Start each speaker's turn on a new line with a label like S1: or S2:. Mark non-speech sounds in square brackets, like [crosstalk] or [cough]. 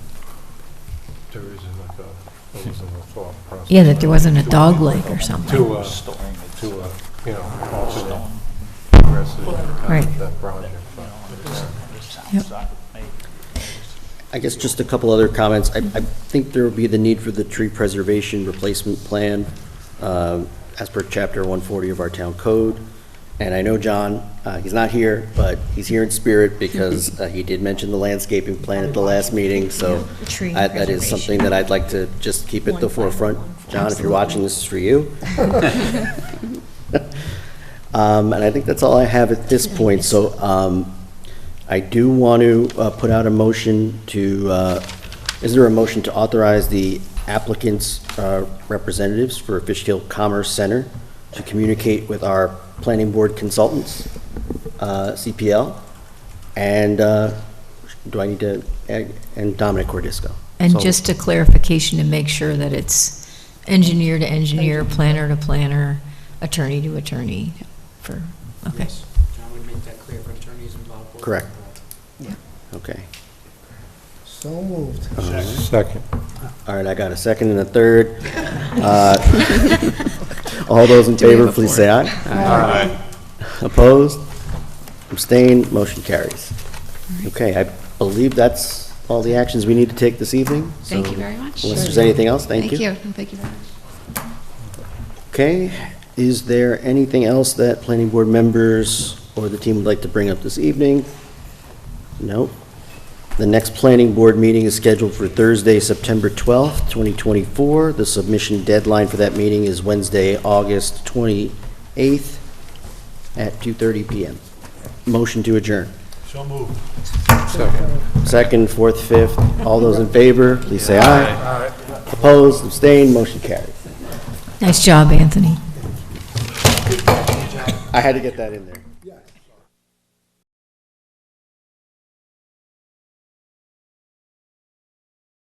S1: there isn't like a, there wasn't a thought process.
S2: Yeah, that there wasn't a dog leg or something.
S1: To, uh,
S3: Storing
S1: to,
S3: it.
S1: uh, you know, alternate progressive kind of
S2: Right.
S1: that project.
S3: You know, it was- it sounds
S2: Yep.
S3: like maybe-
S4: I guess just a couple other comments. I, I think there would be the need for the tree preservation replacement plan um, as per chapter 140 of our town code. And I know John, uh, he's not here, but he's here in spirit because uh, he did mention the landscaping plan at the last meeting, so
S2: Tree
S4: I- that is something that I'd like to just keep at the forefront. John, if you're watching, this is for you. Um, And I think that's all I have at this point, so um, I do want to uh, put out a motion to, uh, is there a motion to authorize the applicant's uh, representatives for Fishkill Commerce Center to communicate with our planning board consultants, uh, CPL, and, uh, do I need to, and Dominic Cordisco? So-
S2: And just a clarification to make sure that it's engineer to engineer, planner to planner, attorney to attorney for, okay.
S5: Yes, John would make that clear for attorneys involved. both
S4: Correct.
S5: involved.
S4: Okay.
S6: So moved.
S1: Second.
S4: All right, I got a second and a third. Uh, [laughs] All those in
S2: Do we have
S4: favor,
S2: a
S4: please
S2: fourth?
S4: say aye. Aye. Opposed? Abstained? Motion carries. Okay, I believe that's all the actions we need to take this evening. so
S7: Thank you very much.
S4: Unless there's anything else, thank you.
S7: Thank you, thank you very much.
S4: Okay, is there anything else that planning board members or the team would like to bring up this evening? No. The next planning board meeting is scheduled for Thursday, September 12th, 2024. The submission deadline for that meeting is Wednesday, August 28th at 2:30 PM. Motion to adjourn.
S3: So moved.
S1: Second.
S4: Second, fourth, fifth, all those in favor, please say aye. Opposed, abstained, motion carried.
S2: Nice job, Anthony.
S4: I had to get that in there.